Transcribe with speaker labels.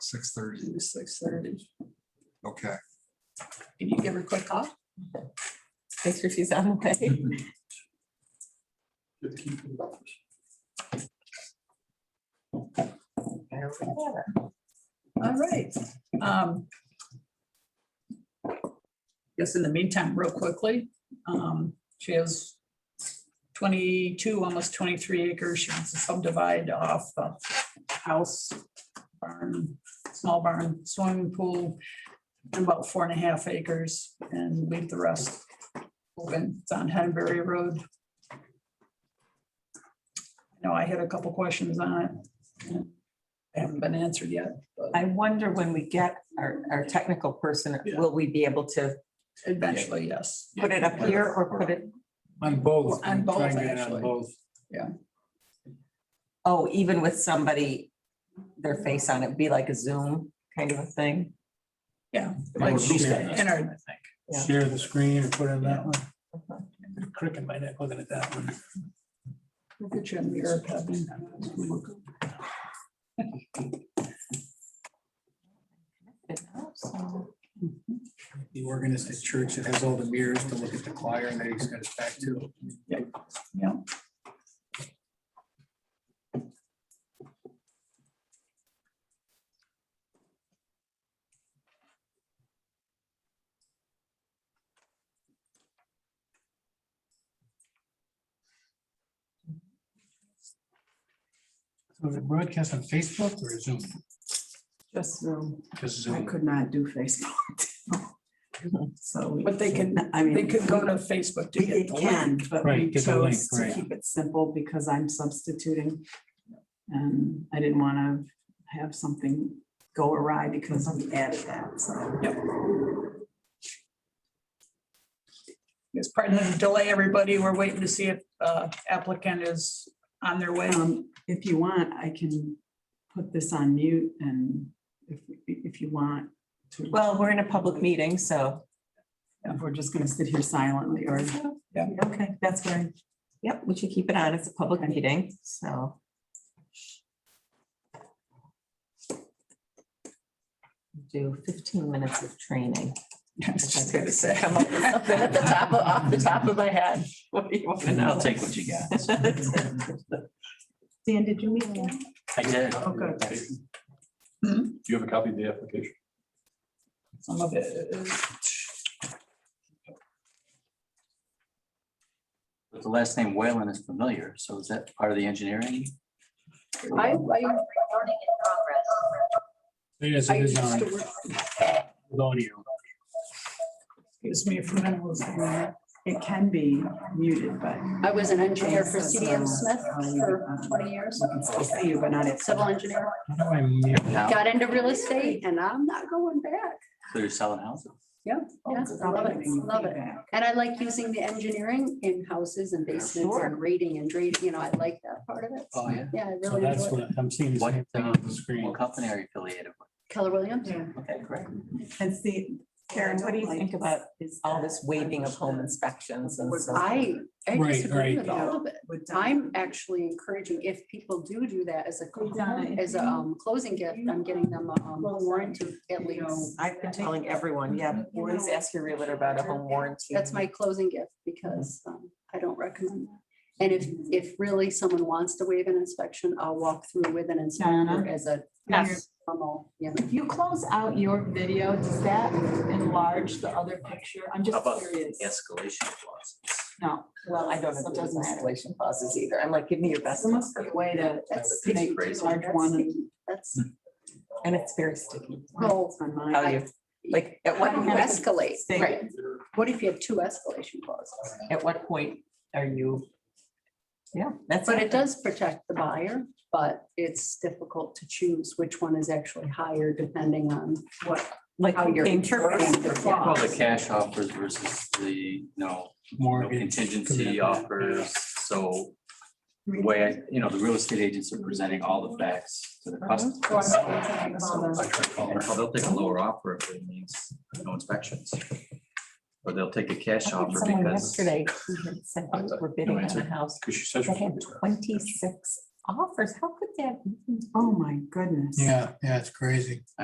Speaker 1: Six thirty,
Speaker 2: Six thirty.
Speaker 1: okay.
Speaker 2: Can you give her a quick call? Make sure she's on the way. There we have it. All right. um,
Speaker 3: Guess in the meantime, real quickly, um, she has twenty-two, almost twenty-three acres. She wants to subdivide off the house, barn, small barn, swimming pool, and about four and a half acres and leave the rest open. It's on Henbury Road. I know I had a couple questions on it. and they Haven't been answered yet, but
Speaker 2: I wonder when we get our, our technical person,
Speaker 4: Yeah.
Speaker 2: will we be able to
Speaker 3: eventually, yes.
Speaker 2: put it up here or put it,
Speaker 5: On both.
Speaker 3: On both,
Speaker 5: Try and get it on
Speaker 3: actually.
Speaker 5: both.
Speaker 2: oh, even with somebody, their face on it, be like a Zoom kind of a thing?
Speaker 4: Like
Speaker 5: Or
Speaker 4: she's got
Speaker 5: share-
Speaker 3: And our
Speaker 2: Yeah.
Speaker 5: Share the screen or put in that one.
Speaker 2: Okay.
Speaker 5: Cricket my neck looking at that one.
Speaker 3: Look at you in the mirror, Kevin.
Speaker 5: The organist at church that has all the mirrors to look at the choir and then he's got his back to.
Speaker 3: Yeah.
Speaker 5: So is it broadcast on Facebook or Zoom?
Speaker 6: Just Zoom.
Speaker 5: Just
Speaker 6: I
Speaker 5: Zoom.
Speaker 6: could not do Facebook. So.
Speaker 3: But they can-
Speaker 6: I mean.
Speaker 3: They could go to Facebook to
Speaker 6: we-
Speaker 3: get
Speaker 6: It
Speaker 3: the link.
Speaker 6: can, but we
Speaker 5: Right, get the link,
Speaker 6: chose to
Speaker 5: right.
Speaker 6: keep it simple because I'm substituting. And I didn't want to have something go awry because we added that, so.
Speaker 3: It's part of the delay, everybody. We're waiting to see if uh, applicant is on their way.
Speaker 6: Um, if you want, I can put this on mute and if, if you want to.
Speaker 2: Well, we're in a public meeting, so,
Speaker 6: If we're just gonna sit here silently or.
Speaker 2: okay, that's where, yep, we should keep it on. It's a public meeting, so. Do fifteen minutes of training.
Speaker 3: I was just gonna say.
Speaker 2: Come up with something At the top of, off the top of my head. What do you want to know?
Speaker 4: I'll take what you got.
Speaker 2: Dan, did you meet him?
Speaker 4: I did.
Speaker 6: Okay.
Speaker 3: Hmm?
Speaker 7: Do you have a copy of the application?
Speaker 3: Some of it is
Speaker 4: But The last name Whalen is familiar, so is that part of the engineering?
Speaker 3: I, I,
Speaker 5: Yes,
Speaker 3: I
Speaker 5: it is
Speaker 3: used
Speaker 5: on
Speaker 3: to work,
Speaker 5: with audio.
Speaker 3: excuse me for that. was-
Speaker 6: It can be muted, but. uh,
Speaker 8: I was an engineer for CDM Smith for 20 years,
Speaker 6: um, I can still see you, but not at.
Speaker 8: civil engineer.
Speaker 5: How do I mute?
Speaker 4: Now,
Speaker 8: Got into real estate and I'm not going back.
Speaker 4: so you're selling houses?
Speaker 8: Yeah, I love it, love it. And I like using the engineering in houses and basements
Speaker 2: Sure.
Speaker 8: and rating and drain, you know, I like that part of it.
Speaker 4: Oh, yeah.
Speaker 8: Yeah, I
Speaker 5: So
Speaker 8: really
Speaker 5: that's
Speaker 8: enjoy it.
Speaker 5: what I'm seeing the
Speaker 4: What,
Speaker 5: same thing
Speaker 4: uh,
Speaker 5: on the screen.
Speaker 4: What company are you affiliated with?
Speaker 8: Keller Williams.
Speaker 4: Okay, great.
Speaker 2: And see, Karen, what do you think about all this waiving of home inspections and so?
Speaker 8: I, I
Speaker 5: Right,
Speaker 8: disagree
Speaker 5: right.
Speaker 8: with all of it.
Speaker 6: With time.
Speaker 8: I'm actually encouraging, if people do do that as a, as a um, closing gift, I'm getting them a um, warranty at least.
Speaker 2: I've been telling everyone, yeah, always ask your realtor about a home warranty.
Speaker 8: That's my closing gift because um, I don't recommend that. And if, if really someone wants to waive an inspection, I'll walk through with an inspector
Speaker 6: Donna?
Speaker 8: as a
Speaker 6: Yes.
Speaker 8: normal, you know.
Speaker 9: If you close out your video, does that enlarge the other picture? I'm
Speaker 4: How
Speaker 9: just
Speaker 4: about
Speaker 9: curious.
Speaker 4: Escalation clauses.
Speaker 9: No.
Speaker 2: Well, I don't have
Speaker 9: So it
Speaker 2: those
Speaker 9: doesn't matter.
Speaker 2: installation clauses either. I'm like, give me your best.
Speaker 9: There must be a way to,
Speaker 8: That's
Speaker 4: That's
Speaker 8: sticky,
Speaker 4: crazy.
Speaker 8: too.
Speaker 6: Large
Speaker 8: That's
Speaker 6: one. Hmm.
Speaker 8: sticky. That's,
Speaker 2: And it's very sticky.
Speaker 8: well,
Speaker 6: On mine.
Speaker 2: Tell you, like, at
Speaker 8: how
Speaker 2: what,
Speaker 8: do you
Speaker 2: point-
Speaker 8: escalate?
Speaker 2: Thing.
Speaker 8: Right. What if you have two escalation clauses?
Speaker 2: at what point are you? Yeah, that's.
Speaker 8: But it does protect the buyer, but it's difficult to choose which one is actually higher depending on what,
Speaker 2: Like
Speaker 8: how you're interpreting the
Speaker 4: Well, the
Speaker 8: clause.
Speaker 4: cash offers versus the, you know, no
Speaker 5: Mortgage.
Speaker 4: contingency
Speaker 5: commitment.
Speaker 7: uh,
Speaker 4: offers, so. the Way, I- you know, the real estate agents are presenting all the facts to the customer. So They'll take a lower offer if it means no inspections. Or they'll take a cash offer
Speaker 2: Someone
Speaker 4: because.
Speaker 2: yesterday who had said they were bidding on
Speaker 4: answer.
Speaker 2: a house.
Speaker 7: Because she said.
Speaker 2: They had twenty-six offers. How could that? even
Speaker 6: Oh, my goodness.
Speaker 5: Yeah, yeah, it's crazy.